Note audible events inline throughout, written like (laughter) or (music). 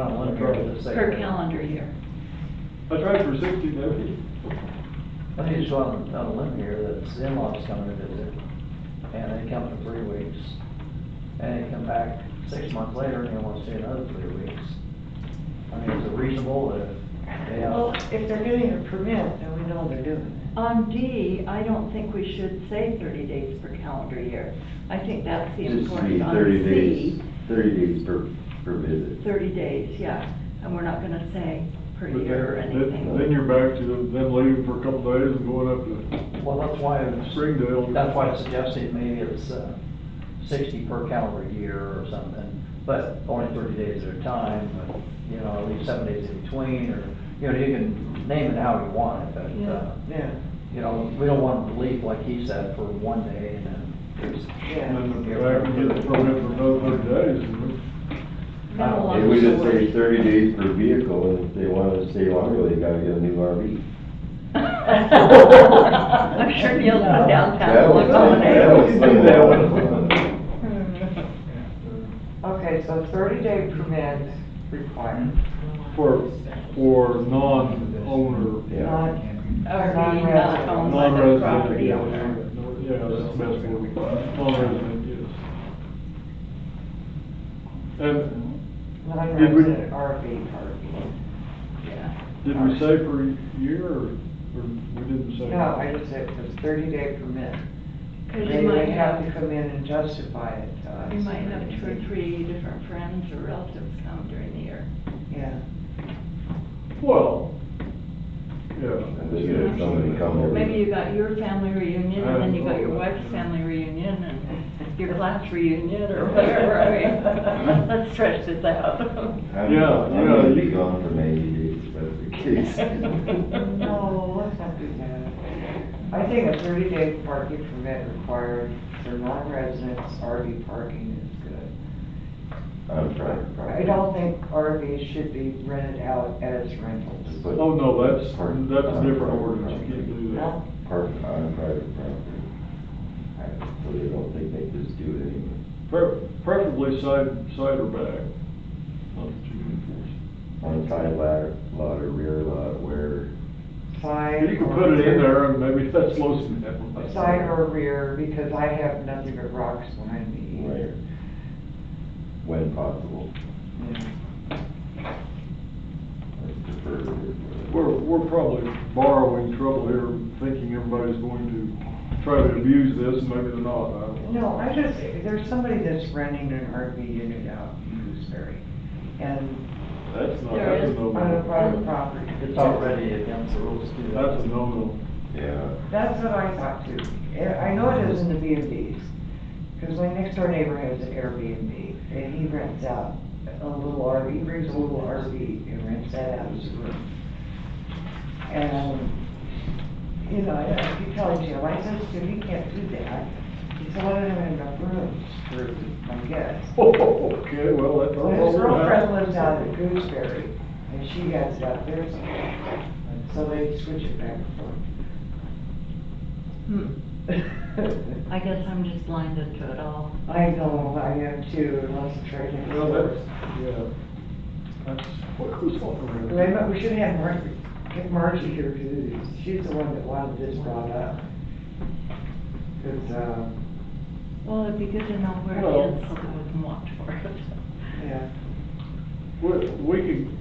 on one truck at the same. per calendar year. I tried for sixty, maybe. I just want to tell them here that his in-laws come to visit, and they come for three weeks, and they come back six months later, and they want to stay another three weeks. I mean, is it reasonable that they Well, have, if they're doing a permit, then we know they're doing On D, I don't think we should say thirty days per calendar year. I think that's the Just be important on thirty days, C. thirty days per, per visit. Thirty days, yeah, and we're not gonna say per But year or then- then- anything. Then you're back to them leaving for a couple days and going up to well, that's why, it's- Springdale. that's why I suggested maybe it's uh, sixty per calendar year or something, but only thirty days at a time, but, you know, leave seven days in between, or, you know, you can name it how you want it, it. but, uh, Yeah, you know, we don't want them to leave, like he said, for one day and then there's, And yeah. then they're back and get the permit for another thirty days. and That'll If we also just work. say thirty days per vehicle, and if they wanna stay longer, they gotta get a new RV. (laughs) I'm sure Neil's been downtown That and would looked over save- that (laughs) would there. save a lot of money. Okay, so thirty day permit required. For, for non-owner. Yeah. Not- Or being not owned by the Non-resident, property yeah. owner. Yeah, that's the best word, non-resident, yes. And Not Did we- rented RV park. Yeah. did we say per year, or, or we didn't say? No, I just said it was thirty day permit. 'Cause They you might would have to have, come in and justify it to us. you might have two or three different friends or relatives come during the year. Yeah. Well, yeah. And they get somebody to come over. Maybe you got your family reunion, and then you got your wife's family reunion, and your class reunion, or whatever, I mean, (laughs) let's stretch this out. I'm- Yeah, I'm yeah, gonna you- be gone for ninety days, if that's the (laughs) case. No, let's not do that. I think a thirty day parking permit required for non-residents RV parking is good. On private I property. don't think RVs should be rented out as rentals. But Oh, no, that's, Park that's a on different private ordinance, you can't do that. No? Park on private property. I really don't think they just do it anymore. Pre- Preferably side, side or back, not that you can On side lot, lot or rear lot, where, Side. enforce. You or can put it in rear- there, and maybe (laughs) that slows them down. Side or rear, because I have nothing but rocks behind me where, either. when possible, Yeah. I prefer. it. We're, we're probably borrowing trouble here, thinking everybody's going to try to abuse this, and maybe they're not, I don't know. No, I just, there's somebody that's renting an RV unit out in Gooseberry, and That's not, There that's a is- on a no-no. private property. it's already against the rules to do That's a that. no-no. (laughs) Yeah. That's what I thought too. And I know it is in the B and Bs, because my next door neighbor has an Airbnb, and he rents out a little RV, he brings a little RV and rents that out as a room. And, you know, I I keep telling Jim, I said, Jim, you can't do that. He said, "Well, I don't have enough rooms for my guests. Okay, well, that's. Well, his girlfriend lives out at Gooseberry, and she has it out there, so- so they switch it back Hmm, and forth. I guess I'm just blinded to it all. I know, I am too, unless it's right next Well, door. that's, yeah. That's what goes on around. Wait a minute, we should have Margie, get Margie here, because she's the one that wanted this brought up. Because, uh, Well, it'd be good to know where Well- it is, so that we can walk toward it. yeah, We, we can,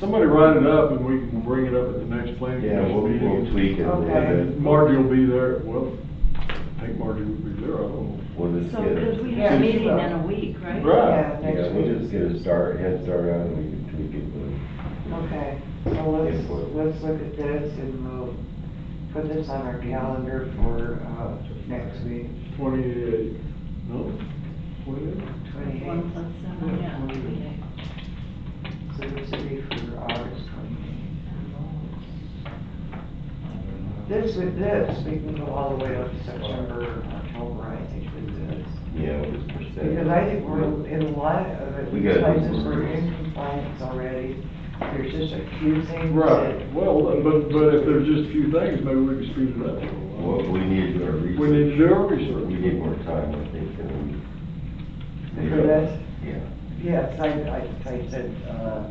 somebody write it up and we can bring it up at the next planning Yeah, we'll, commission we'll meeting. tweak it a little Okay. bit. Margie will be there, well, I think Margie would be there, I don't know. We'll just So, get, because we a- have a Yeah. meeting in a week, right? Right. yeah, yeah, next we'll just week. get a start, head start on, and we can tweak it, but Okay, so let's, Yeah, we'll- let's look at this and we'll put this on our calendar for, uh, next week, Twenty-eight, no, twenty-eight? One twenty-eighth. plus seven, yeah, okay. So this would be for August twenty-eighth. This, with this, we can go all the way up to September, October, I think, with this. yeah, we'll just push that. Because I think we're in a lot of We it, got- places we're in compliance already, there's just a few things Right, that. well, but, but if there's just a few things, maybe we can speed it up. a little Well, we need to do our while. research. We need to do our We research. need more time, I think, than we. For this? Yeah. yes, I, I typed it, uh,